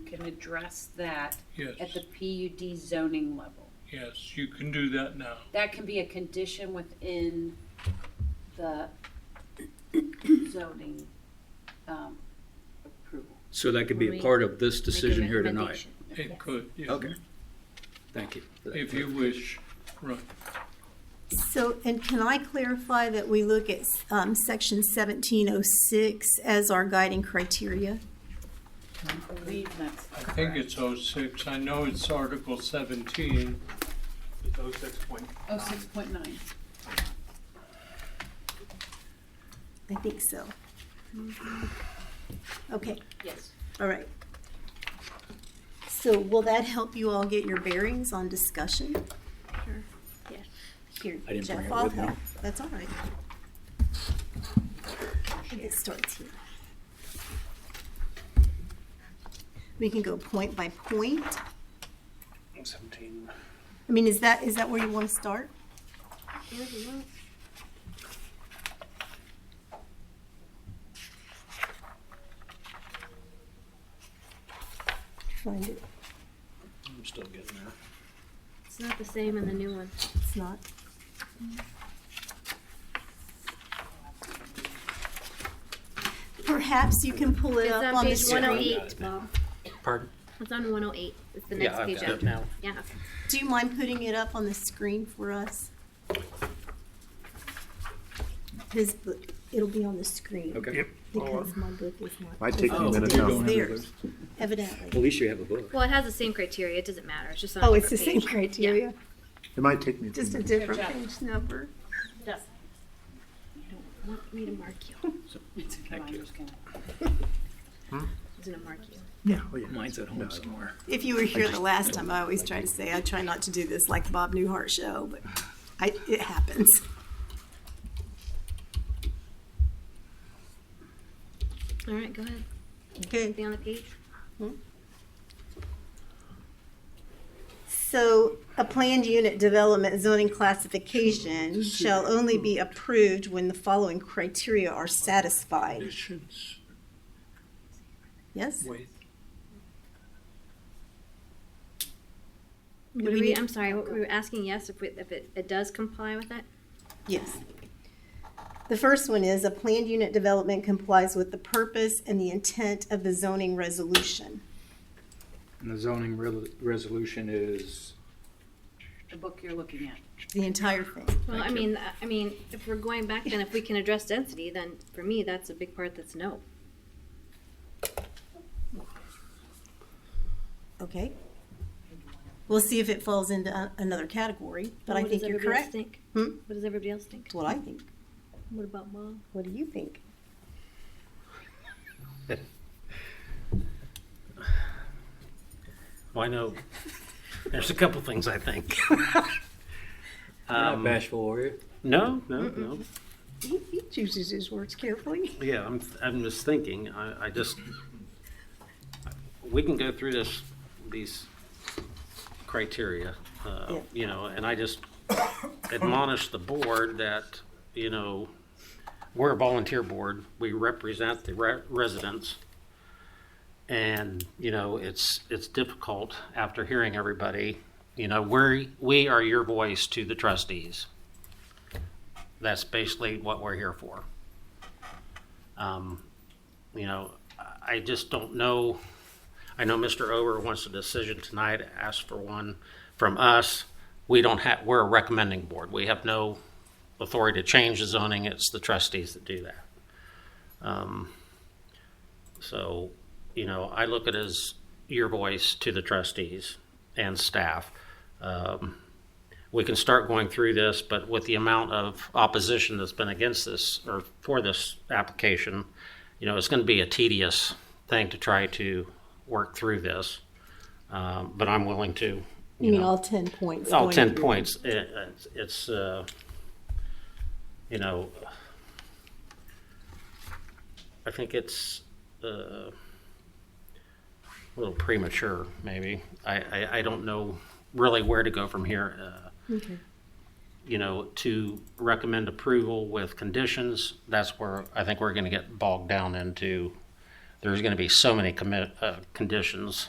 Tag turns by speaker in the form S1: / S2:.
S1: can address that at
S2: Yes,
S1: the PUD zoning level.
S2: yes, you can do that now.
S1: That can be a condition within the zoning, um, approval.
S3: So that could be a part of this decision here tonight.
S2: It could, yeah.
S3: Okay. Thank you. for that
S2: If you wish, right.
S4: So, and can I clarify that we look at um, section seventeen oh six as our guiding criteria?
S1: I believe that's
S2: I think it's oh six. I know it's Article seventeen.
S5: It's oh six point.
S1: Oh, six point nine.
S4: I think so. Okay,
S1: Yes.
S4: all right. So will that help you all get your bearings on discussion? Here,
S3: I didn't bring
S4: Jeff,
S3: it
S4: I'll
S3: with me.
S4: help. That's all right. I think It starts here. We can go point by point.
S5: Seventeen.
S4: I mean, is that, is that where you want to start? Find it.
S5: I'm still getting there.
S6: It's not the same in the new one.
S4: It's not. Perhaps you can pull it
S6: It's
S4: up
S6: on
S4: on the
S6: page one oh
S4: screen.
S6: eight, Bob.
S3: Pardon?
S6: It's on one oh eight. It's the
S3: Yeah,
S6: next
S3: I've
S6: page
S3: got it
S6: after.
S3: now.
S6: Yeah.
S4: Do you mind putting it up on the screen for us? His book, it'll be on the screen.
S3: Okay.
S4: Because my book is not.
S7: Might take a few
S3: Oh,
S7: minutes
S3: you
S7: now.
S3: don't have
S4: Theirs,
S3: those. At
S4: evidently.
S3: least you have a book.
S6: Well, it has the same criteria. It doesn't matter. It's just on a
S4: Oh, it's the same
S6: different page.
S4: criteria,
S7: It might take me a few
S4: just a
S7: minutes.
S4: different
S1: Good job.
S4: page number.
S6: You don't want me to mark you.
S1: It's okay,
S3: Thank
S1: I'm
S3: you.
S1: just gonna-
S6: It's gonna mark you.
S7: Yeah, oh yeah.
S3: Mine's at
S7: No, I
S3: home
S7: don't.
S3: somewhere.
S4: If you were here the last time, I always try to say, I try not to do this like the Bob Newhart show, but I, it happens.
S6: All right, go ahead.
S4: Okay.
S6: Anything on the page?
S4: So a planned unit development zoning classification shall only be approved when the following criteria are satisfied.
S2: Conditions
S4: Yes?
S2: with
S4: Do
S6: What were
S4: we
S6: we,
S4: need-
S6: I'm sorry, what were we asking? Yes, if we, if it, it does comply with that?
S4: Yes. The first one is a planned unit development complies with the purpose and the intent of the zoning resolution.
S3: And the zoning resolution is,
S1: The book you're looking at.
S4: The entire thing.
S6: Well, I
S3: Thank you.
S6: mean, I- I mean, if we're going back, then if we can address density, then for me, that's a big part that's no.
S4: Okay. We'll see if it falls into a- another category, but I
S6: What does
S4: think you're
S6: everybody
S4: correct.
S6: else think?
S4: Hmm?
S6: What does everybody else think?
S4: That's what I think.
S6: What about Bob?
S4: What do you think?
S8: Well, I know there's a couple things I think.
S3: not
S8: Um,
S3: bashful, are you?
S8: no, no, no.
S4: He he chooses his words carefully.
S8: Yeah, I'm, I'm just thinking. I, I just, we can go through this, these criteria, uh,
S4: Yeah.
S8: you know, and I just admonish the board that, you know, we're a volunteer board. We represent the re- residents. And, you know, it's, it's difficult after hearing everybody, you know, we're, we are your voice to the trustees. That's basically what we're here for. Um, you know, I- I just don't know. I know Mr. Ober wants a decision tonight, asked for one from us. We don't have, we're a recommending board. We have no authority to change the zoning. It's the trustees that do that. Um, so, you know, I look at it as your voice to the trustees and staff. Um, we can start going through this, but with the amount of opposition that's been against this or for this application, you know, it's going to be a tedious thing to try to work through this. Um, but I'm willing to, you,
S4: You mean
S8: know,
S4: all ten points?
S8: all
S4: going
S8: 10
S4: through.
S8: Oh, points. It- it's- it's, uh, you know, I think it's uh, a little premature, maybe. I, I, I don't know really where to go from here. Uh,
S4: Okay.
S8: you know, to recommend approval with conditions, that's where I think we're going to get bogged down into. There's going to be so many commit, uh, conditions